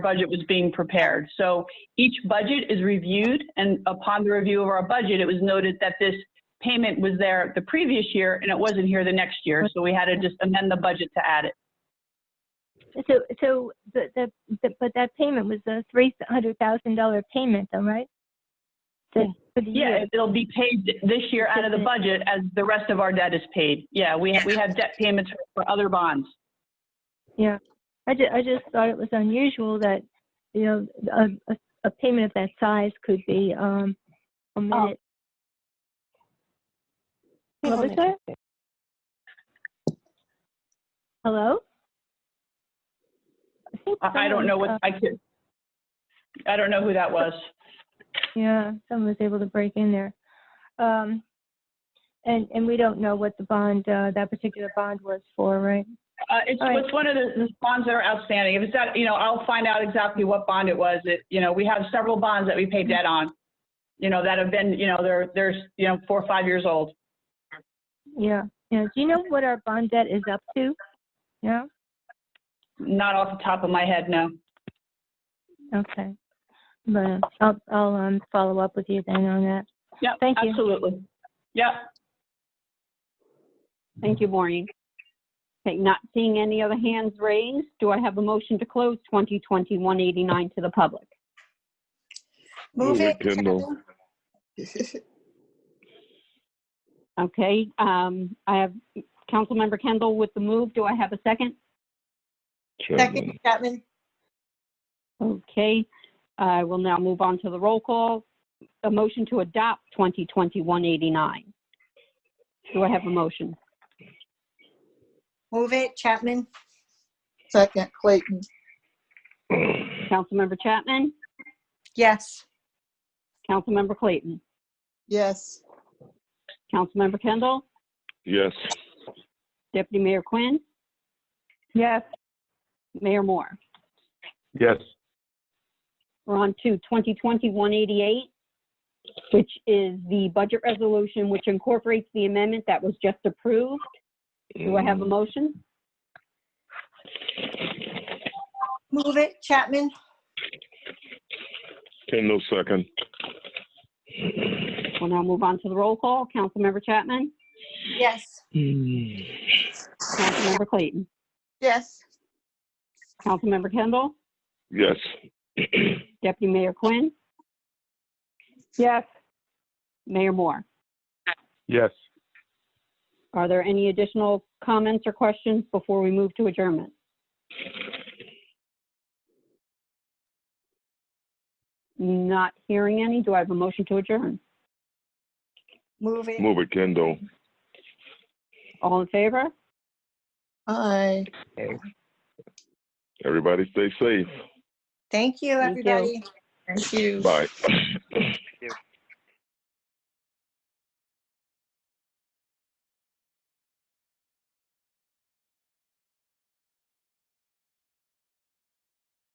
budget was being prepared. So each budget is reviewed, and upon the review of our budget, it was noted that this payment was there the previous year and it wasn't here the next year. So we had to just amend the budget to add it. So, so the, the, the, but that payment was a three hundred thousand dollar payment though, right? The- For the Yeah, year, it- it'll be paid this year out of the budget as the rest of our debt is paid. Yeah, we, we have debt payments for other bonds. yeah. I ju- I just thought it was unusual that, you know, a, a, a payment of that size could be, um, omitted. Oh. What was that? Hello? think I, I don't know someone, what, uh, I could, I don't know who that was. Yeah, someone was able to break in there. Um, and, and we don't know what the bond, uh, that particular bond was for, right? Uh, it's, All right. it's one of the the bonds that are outstanding. If it's that, you know, I'll find out exactly what bond it was. It, you know, we have several bonds that we pay debt on. You know, that have been, you know, they're, they're, you know, four or five years old. Yeah, yeah. Do you know what our bond debt is up to? No? Not off the top of my head, no. Okay. But I'll, I'll, um, follow up with you then on that. Yeah, Thank you. absolutely. Yep. Thank you, Maureen. Okay, not seeing any other hands raised, do I have a motion to close 2020-189 to the public? Move Move it, it, Kendall. Okay, um, I have Councilmember Kendall with the move. Do I have a second? Second, Chapman. Chapman? Okay, I will now move on to the roll call. A motion to adopt 2020-189. Do I have a motion? Move it, Chapman? Second, Clayton. Councilmember Chapman? Yes. Councilmember Clayton? Yes. Councilmember Kendall? Yes, Deputy Mayor Quinn? Yes. Mayor Moore? Yes, We're on to 2020-188, which is the budget resolution which incorporates the amendment that was just approved. Do I have a motion? Move it, Chapman? Kendall second. We'll now move on to the roll call. Councilmember Chapman? Yes. Mm. Councilmember Clayton? Yes. Councilmember Kendall? Yes, Deputy Mayor Quinn? Yes. Mayor Moore? yes. Are there any additional comments or questions before we move to adjournment? Not hearing any. Do I have a motion to adjourn? Move it. move it, Kendall. All in favor? Aye. Everybody stay safe. Thank you, Thank you. everybody. Thank you. Bye.